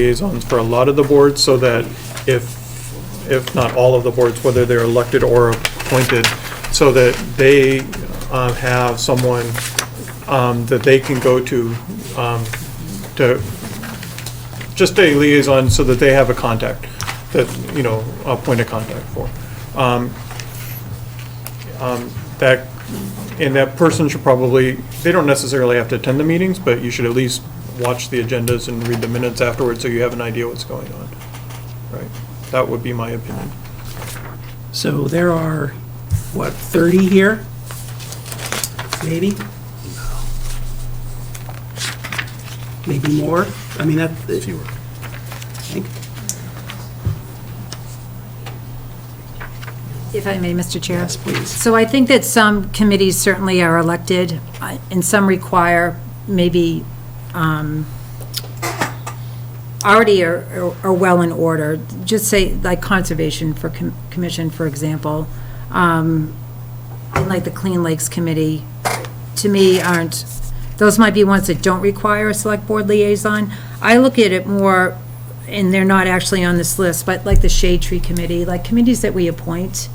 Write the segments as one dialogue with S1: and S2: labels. S1: liaisons for a lot of the boards, so that if, if not all of the boards, whether they're elected or appointed, so that they uh, have someone um, that they can go to, um, to, just a liaison, so that they have a contact, that, you know, a point of contact for. Um, um, That, and that person should probably, they don't necessarily have to attend the meetings, but you should at least watch the agendas and read the minutes afterwards, so you have an idea what's going on. Right? That would be my opinion.
S2: So there are, what, 30 here? Maybe? Maybe more? I mean, that... Fewer.
S3: If I may, Mr. Chair?
S2: Yes, please.
S3: So I think that some committees certainly are elected, uh, and some require maybe, um, already are- are are well in order. Just say, like Conservation for Com- Commission, for example, um, and like the Clean Lakes Committee, to me, aren't, those might be ones that don't require a Select Board liaison. I look at it more, and they're not actually on this list, but like the Shade Tree Committee, like committees that we appoint.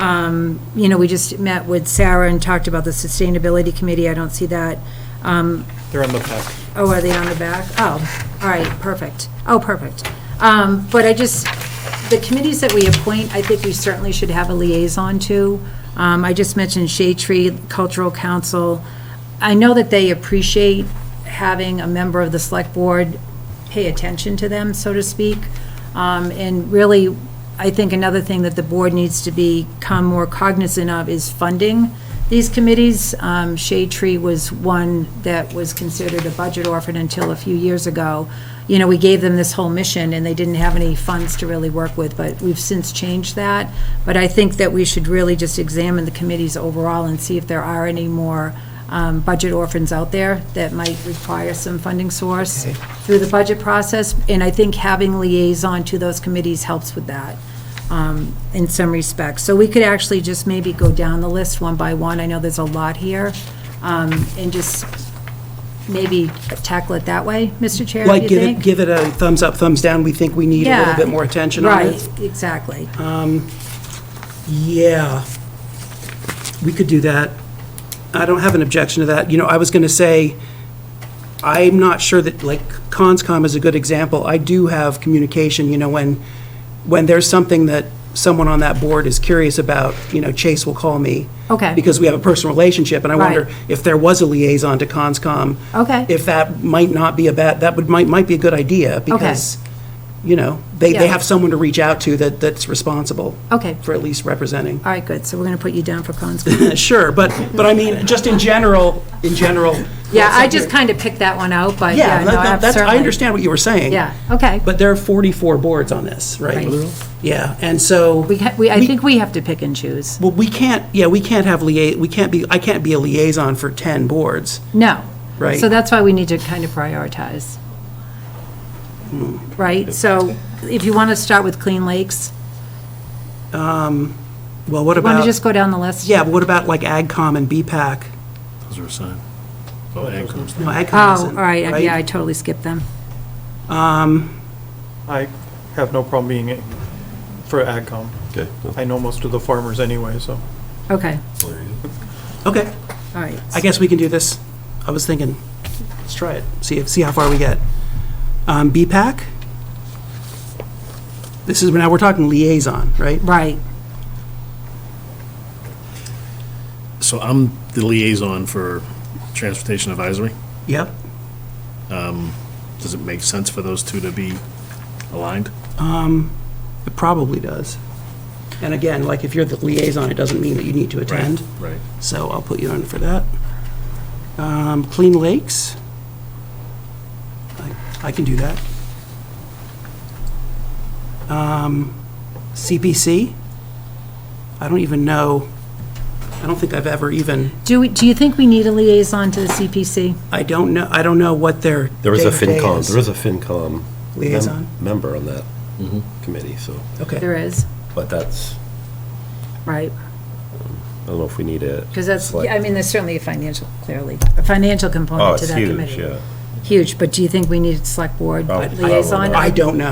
S3: Um, You know, we just met with Sarah and talked about the Sustainability Committee, I don't see that. Um,
S1: They're on the packet.
S3: Oh, are they on the back? Oh, all right, perfect. Oh, perfect. Um, But I just, the committees that we appoint, I think we certainly should have a liaison to. Um, I just mentioned Shade Tree Cultural Council. I know that they appreciate having a member of the select board pay attention to them, so to speak. Um, And really, I think another thing that the board needs to become more cognizant of is funding these committees. Um, Shade Tree was one that was considered a budget orphan until a few years ago. You know, we gave them this whole mission, and they didn't have any funds to really work with, but we've since changed that. But I think that we should really just examine the committees overall and see if there are any more um, budget orphans out there that might require some funding source through the budget process, and I think having liaison to those committees helps with that um, in some respects. So we could actually just maybe go down the list one by one, I know there's a lot here, um, and just maybe tackle it that way, Mr. Chair, do
S2: Like,
S3: you
S2: give it,
S3: think?
S2: give it a thumbs up, thumbs down, we think we need a little
S3: Yeah.
S2: bit more attention on it. Uh.
S3: Right, exactly.
S2: Yeah, we could do that. I don't have an objection to that. You know, I was going to say, I'm not sure that, like, ConsCom is a good example. I do have communication, you know, when, when there's something that someone on that board is curious about, you know, Chase will call me.
S3: Okay.
S2: Because we have a personal relationship, and I wonder
S3: Right.
S2: if there was a liaison to ConsCom.
S3: Okay.
S2: If that might not be a bad, that would, might, might be a good idea, because, you know, they,
S3: Yeah.
S2: they have someone to reach out to that, that's responsible.
S3: Okay.
S2: For at least representing.
S3: All right, good, so we're going to put you down for cons.
S2: Sure, but, but I mean, just in general, in general.
S3: Yeah, I just kind of picked that one out, but
S2: Yeah,
S3: yeah, no,
S2: that- that- that's, I
S3: absolutely.
S2: understand what you were saying.
S3: Yeah, okay.
S2: But there are 44 boards on this, right?
S3: Right.
S2: Yeah, and so.
S3: We, ha- we, I think we have to pick and choose.
S2: Well, we can't, yeah, we can't have lia, we can't be, I can't be a liaison for 10 boards.
S3: No.
S2: Right.
S3: So that's why we need to kind of prioritize.
S2: Hmm.
S3: Right? So if you want to start with Clean Lakes,
S2: Well, what
S3: want to
S2: about,
S3: just go down the list?
S2: yeah, but what about like AgCom and BPAC?
S4: Those are assigned. Oh, and comes
S2: No, AgCom
S3: Oh,
S2: isn't,
S3: all right, yeah, I totally skipped them.
S1: I have no problem being in for AgCom.
S4: Okay.
S1: I know most of the farmers anyway, so.
S3: Okay,
S2: Okay,
S3: all right.
S2: I guess we can do this. I was thinking, let's try it, see, if see how far we get. Um, BPAC? This is, now we're talking liaison, right?
S3: Right,
S4: So I'm the liaison for Transportation Advisory.
S2: Yep.
S4: Does it make sense for those two to be aligned?
S2: It probably does. And again, like, if you're the liaison, it doesn't mean that you need to attend.
S4: Right.
S2: So I'll put you on for that. Um, Clean Lakes? I- I can do that. Um, CPC? I don't even know, I don't think I've ever even,
S3: do, we- do you think we need a liaison to the CPC?
S2: I don't know, I don't know what their
S5: There is a
S2: day-to-day
S5: FinCom,
S2: is.
S5: there is a FinCom mem-
S2: Liaison?
S5: member on that
S3: Mm-hmm.
S5: committee, so,
S2: Okay,
S3: There is,
S5: but that's,
S3: right,
S5: I don't know if we need it.
S3: because that's,
S5: Select-
S3: I mean, there's certainly a financial, clearly, a financial
S5: Oh,
S3: component to
S5: it's
S3: that committee.
S5: huge, yeah.
S6: huge, but do you think we need select board
S3: Oh, I
S6: liaison?
S3: don't know.
S5: I don't know.